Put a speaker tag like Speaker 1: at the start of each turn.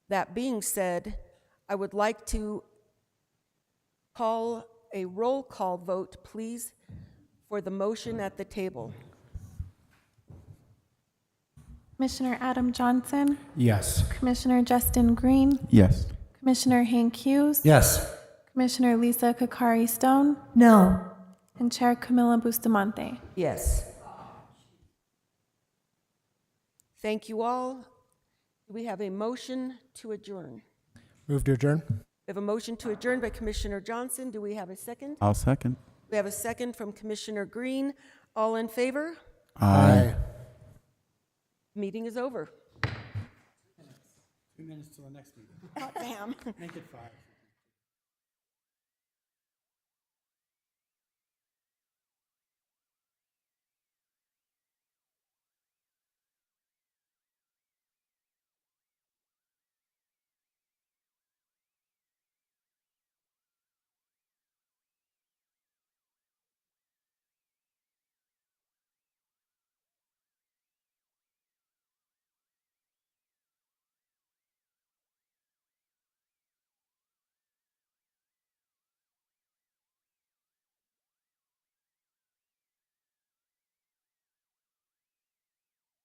Speaker 1: That being said, I would like to call a roll call vote, please, for the motion at the table.
Speaker 2: Commissioner Adam Johnson,
Speaker 3: Yes.
Speaker 2: Commissioner Justin Green,
Speaker 3: Yes.
Speaker 2: Commissioner Hank Hughes,
Speaker 3: Yes.
Speaker 2: Commissioner Lisa Kokari Stone,
Speaker 4: No.
Speaker 2: and Chair Camilla Bustamante.
Speaker 1: Yes. Thank you all. Do We have a motion to adjourn.
Speaker 3: Move to adjourn?
Speaker 1: We have a motion to adjourn by Commissioner Johnson. Do we have a second?
Speaker 5: I'll second.
Speaker 1: We have a second from Commissioner Green. All in favor?
Speaker 3: Aye.
Speaker 1: Meeting is over.
Speaker 3: Two minutes till the next meeting.
Speaker 1: Damn.
Speaker 3: Make it five.